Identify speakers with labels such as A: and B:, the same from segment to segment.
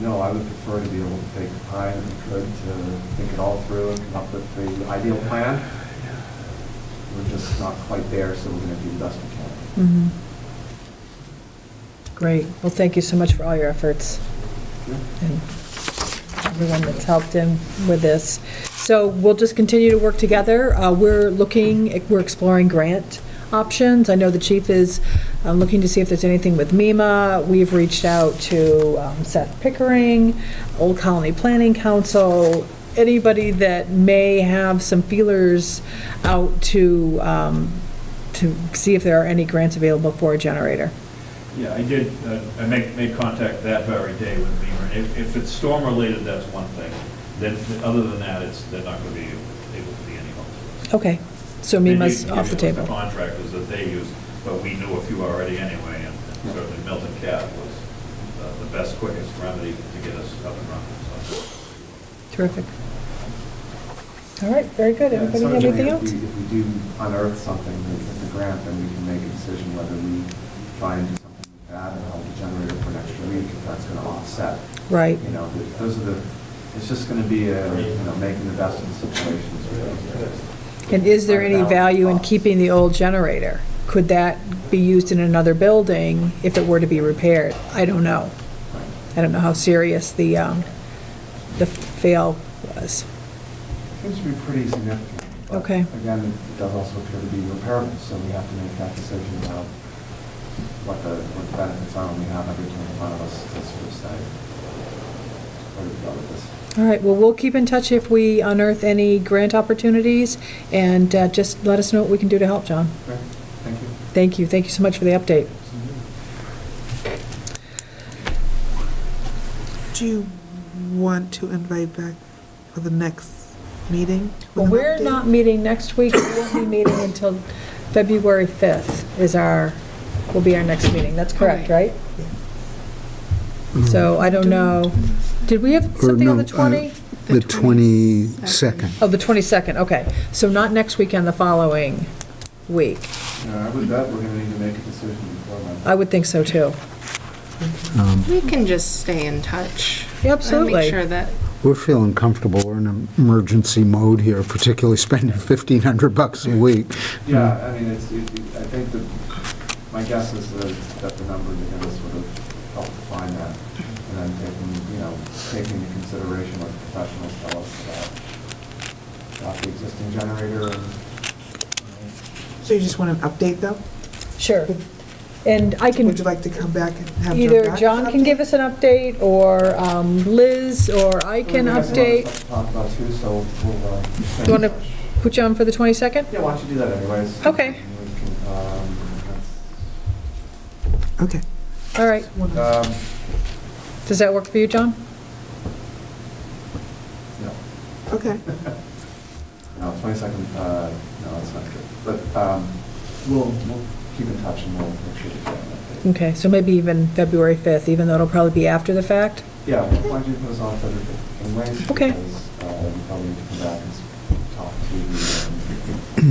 A: no, I would prefer to be able to take the time if we could to think it all through and come up with the ideal plan. We're just not quite there, so we're going to do the best we can.
B: Mhm. Great. Well, thank you so much for all your efforts and everyone that's helped him with this. So we'll just continue to work together. Uh, We're looking, we're exploring grant options. I know the chief is uh, looking to see if there's anything with MEMA. We've reached out to um, Seth Pickering, Old Colony Planning Council, anybody that may have some feelers out to, um, to see if there are any grants available for a generator.
C: Yeah, I did, uh, I made, made contact that very day with Beamer. If, if it's storm related, that's one thing. Then, other than that, it's, they're not gonna be able able to be any help. to us.
B: Okay, so
C: They
B: MEMA's
C: did give
B: off
C: it
B: the
C: with
B: table.
C: Contractors that they use, but we knew a few already anyway, and and certainly Milton Cat was uh, the best, quickest remedy to get us up and running, so.
B: Terrific. All right, very good.
A: Yeah, and
B: Everybody have
A: certainly
B: anything
A: if
B: else?
A: we- If we do unearth something with the grant, then we can make a decision whether we try and do something with that and hold the generator for an extra week, if that's going to offset.
B: Right,
A: You know, th- those are the, it's just going to be, a, you know, making the best of the situations. really.
B: and is there any
A: Right now,
B: value in
A: uh,
B: keeping the old generator? Could that be used in another building if it were to be repaired? I don't know. I don't know how serious the, um, the fail was.
A: Seems to be pretty significant. but
B: Okay.
A: Again, it does also appear to be repairable, so we have to make that decision about what the, what the benefits are, and we have everything in front of us to sort of say, where do we go with this?
B: All right, well, we'll keep in touch if we unearth any grant opportunities, and uh, just let us know what we can do to help, John.
A: Great, thank you.
B: Thank you, thank you so much for the update.
D: Do you want to invite back for the next meeting?
B: Well,
D: with an
B: we're
D: update?
B: not meeting next week, we won't be meeting until February 5th is our, will be our next meeting, that's correct, right? So I don't know, did we have
E: Mm-hmm. Or
B: something on
E: no,
B: the 20?
E: The 22nd.
B: Oh, the 22nd, okay, so not next weekend, the following week,
A: Yeah, I would bet we're gonna need to make a decision before then.
B: I would think so too.
E: Um,
F: We can just stay in touch.
B: Yeah,
F: And
B: absolutely.
F: make sure that,
E: We're feeling comfortable, we're in an emergency mode here, particularly spending 1,500 bucks a week.
A: Yeah, I mean, it's, it- it- I think that, my guess is that that the numbers are gonna sort of help define that, and then taking, you know, taking into consideration what the professionals tell us about, about the existing generator and, you
D: So you just want an update, though?
B: Sure, and I can.
D: Would you like to come back and have? Joe
B: Either
D: back?
B: John can give us an update, or um, Liz, or I
A: know.
B: can
A: We have some other
B: update.
A: stuff to Talk about too, so we'll, uh. stay in
B: You wanna-
A: touch.
B: Put you on for the 22nd?
A: Yeah, why don't you do that anyways?
B: Okay.
A: And we can, um,
D: Okay.
B: All right,
D: Wanna-
A: that's- um,
B: does that work for you, John?
A: no.
D: Okay,
A: No, 22nd, uh, no, that's not good. But um, we'll, we'll keep in touch and we'll make sure to get an update.
B: Okay, so maybe even February 5th, even though it'll probably be after the fact?
A: Yeah, why don't you put us on for the, in ways?
B: Okay.
A: Because uh, we probably need to come back and s- talk to the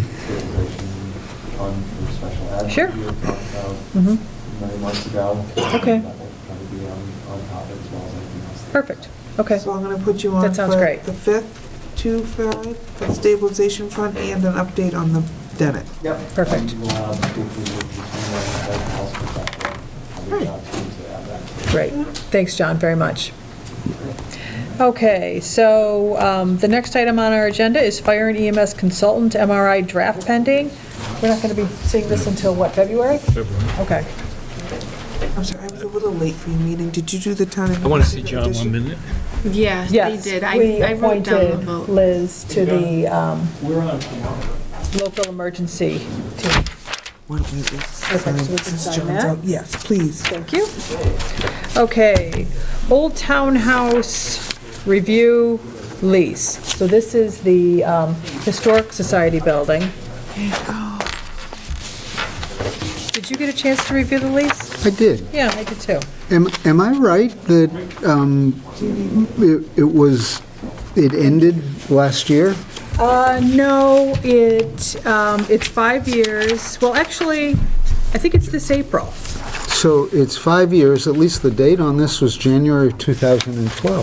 A: um, stabilization fund for special ed.
B: Sure.
A: that We had talked about
B: Mhm.
A: many months ago.
B: Okay.
A: That will probably be on, on top as well as anything else.
B: Perfect, okay.
D: so I'm going to put you on.
B: That sounds
D: for
B: great.
D: The 5th, 2, 5, the stabilization fund, and an update on the Dennett.
A: Yep.
B: Perfect.
A: And uh, we'll have, hopefully, we'll do some more anything else for that. I'll reach out to you to add that. to it.
B: Great, thanks, John, very much. Okay, so um, the next item on our agenda is fire and EMS consultant MRI draft pending. We're not going to be seeing this until, what, February? February. Okay.
D: I'm sorry, I was a little late for your meeting. Did you do the town?
G: I want to see John one
D: administrator
G: minute.
F: yes, they
B: Yes,
F: did. I
B: we
F: I wrote down the
B: appointed
F: vote.
B: Liz to the um,
C: We're on tomorrow.
B: local emergency team.
D: addition? Why don't we just
B: Perfect, so we
D: sign
B: can
D: since
B: sign
D: John's
B: that?
D: out? Yes, please.
B: Thank you. Okay, Old Town House Review Lease. So this is the um, Historic Society building. Did you get a chance to review the lease?
E: I did.
B: Yeah, I did too.
E: Am am I right that um, it it was, it ended last year?
B: Uh, no, it, um, it's five years. Well, actually, I think it's this April.
E: So it's five years, at least the date on this was January of 2012.